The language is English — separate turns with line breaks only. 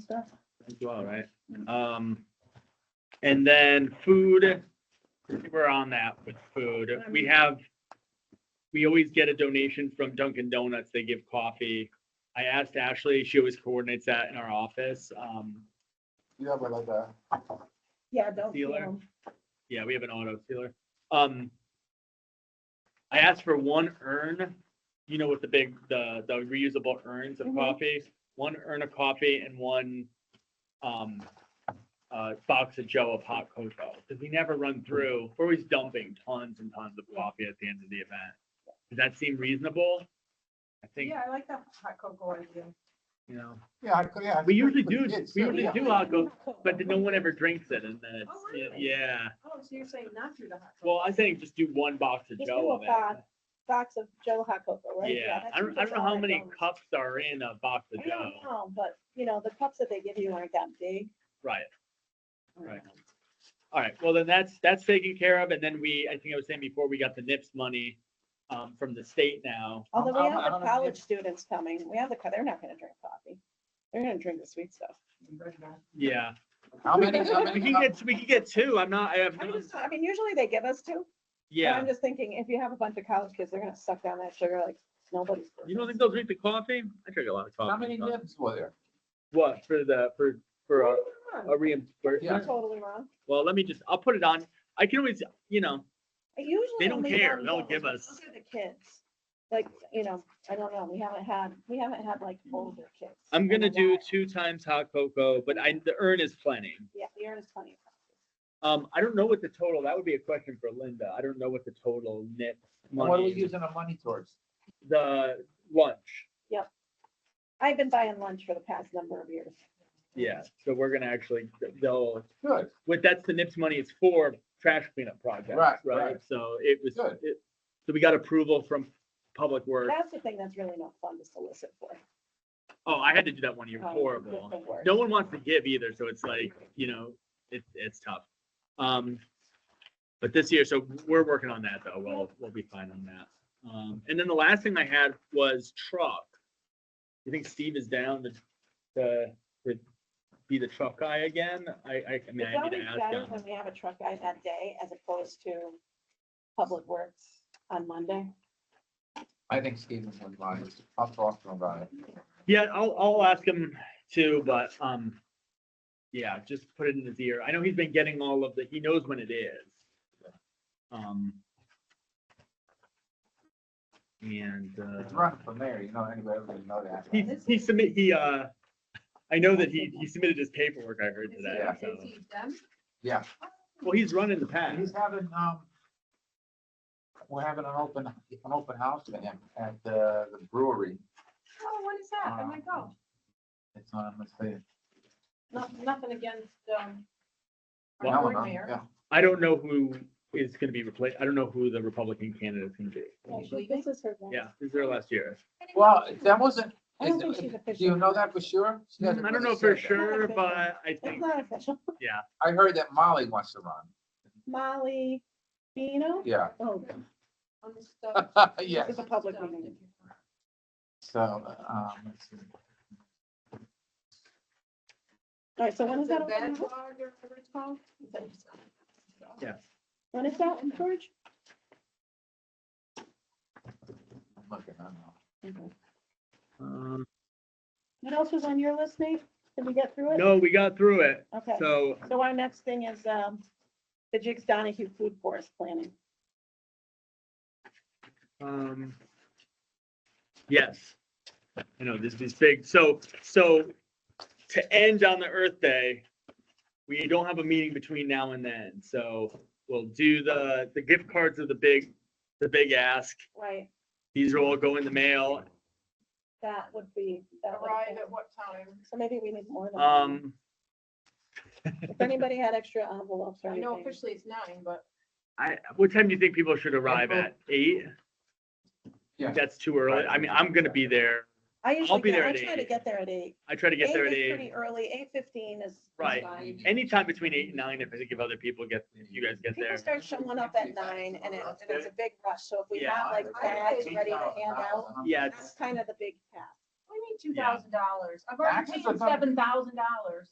stuff.
as well, right? Um, and then food, we're on that with food. We have, we always get a donation from Dunkin' Donuts. They give coffee. I asked Ashley, she always coordinates that in our office. Um,
You have like uh, a,
Yeah, don't feel
Sealer.
them.
yeah, we have an auto sealer. Um, I asked for one urn, you know, with the big, the, the reusable urns of
Mhm.
coffee, one urn of coffee and one, um, uh, box of Joe of hot cocoa, because we never run through, we're always dumping tons and tons of coffee at the end of the event. Does that seem reasonable? I think,
Yeah, I like that hot cocoa idea.
you know,
yeah, I could, yeah.
We usually do- we usually
Yeah.
do hot cocoa, but no one ever drinks it and then,
Oh,
it's-
really?
yeah.
Oh, so you're saying not through the hot cocoa?
Well, I think just do one box of
Just do
Joe
a
of it.
box. Box of Joe hot cocoa, right?
Yeah,
that's
I don't, I
that's
don't know how
all
many
donuts.
cups are in a box of
I don't
dough.
know, but you know, the cups that they give you aren't that big.
Right, right. All right, well, then that's, that's taken care of, and then we, I think I was saying before, we got the NIPS money, um, from the state now.
Although
I'm-
we
I'm-
have
I'm
the
gonna give-
college students coming, we have the, co- they're not gonna drink coffee. They're gonna drink the sweet stuff.
Yeah,
How many, how
we
many,
can get, we can get two, I'm not, I have,
I'm
no-
just, I mean, usually they give us two. but
yeah.
I'm just thinking, if you have a bunch of college kids, they're gonna suck down that sugar like nobody's.
You don't think they'll drink the coffee? I drink a lot of coffee.
how many nibs were there?
What, for the, for, for
Uh,
a,
Come on.
a
You're
reimbursement?
totally wrong.
Well, let me just, I'll put it on, I can always, you know,
I Usually.
They don't
only
care.
one
They'll
goes,
give
but
us-
Those are the kids. Like, you know, I don't know. We haven't had, we haven't had like older kids.
I'm
in a
gonna do
while.
two times hot cocoa, but I, the urn is plenty.
Yeah, the urn is plenty. of coffee.
Um, I don't know what the total, that would be a question for Linda. I don't know what the total net
And What are we
money,
using the money towards?
the lunch.
I've been buying lunch for the past number of years.
Yeah, so we're gonna actually, they'll,
Good,
what, that's the NIPS money, it's for trash cleanup
Right,
projects, right?
right.
So it was,
Good.
it, so we got approval from Public Works.
That's the thing that's really not fun to solicit for.
Oh, I had to do that one year,
Um,
horrible.
the worst.
no one wants to give either, so it's like, you know, it, it's tough. Um, but this year, so we're working on that though, we'll, we'll be fine on that. Um, and then the last thing I had was truck. You think Steve is down to, to, to be the truck guy again? I, I, I mean,
It's
I need
always
to ask
better
him.
when we have a truck guy that day as opposed to Public Works on Monday.
I think Stevens would lie, I'll talk to him about it.
Yeah, I'll, I'll ask him too, but, um, yeah, just put it in his ear. I know he's been getting all of the, he knows when it is. Um. And,
It's
uh,
run from there, you know, anybody would know that.
he, he submit, he, uh, I know that he, he submitted his paperwork, I heard
Is he-
today, so.
is he done?
Yeah,
Well, he's run in the
and he's
past.
having, um, we're having an open, an open house for him at the the brewery.
Oh, what is that? I might go.
It's on, let's see.
Nothing, nothing against, um,
Now
our
I'm
board
on,
mayor.
yeah.
I don't know who is gonna be replaced. I don't know who the Republican candidate is gonna be.
Actually,
This is her. last-
Yeah, he's there last year.
Well, that wasn't,
I don't think she's
do
official.
you know that for sure? She
I
hasn't
don't
really
know for
said that.
sure, but I
It's
think,
not official.
yeah,
I heard that Molly wants to run.
Molly Bino?
Yeah,
Oh,
on the stuff-
yes.
It's a public meeting.
So, um, let's see.
all right, so when is that?
The
open?
bed log or whatever it's called? Is that just-
When is that, George?
I'm looking, I don't know.
um,
What else was on your list, Nate? Did we get through it?
no, we got through it.
Okay,
So
so our next thing is, um, the Jigs Donahue Food Forest Planning.
Um, yes, I know this is big. So, so to end on the Earth Day, we don't have a meeting between now and then. So we'll do the, the gift cards are the big, the big ask.
Right,
These will all go in the mail.
that would be. that would
Arrive
be-
at what time?
So maybe we need more than. one.
Um,
If anybody had extra envelopes or
I know
anything.
officially it's nine, but
I, what time do you think people should arrive
Oh.
at? Eight?
Yeah.
That's too early. I mean, I'm gonna be there.
I usually,
be
get-
there
I
at
try to
eight.
get there at eight.
I try to get there at
is
eight.
Pretty early, eight fifteen is. is
Right.
fine.
Anytime between eight and nine, if I think if other people get, if you guys get there.
People start showing up at nine and it, and it's a big rush, so if we
Yeah.
have like
I- I
bags
think
ready to
about
hand
that
out,
one.
Yeah,
that's kind of the big task.
I mean, two thousand dollars. I've already
Taxes
paid
are not-
seven thousand dollars.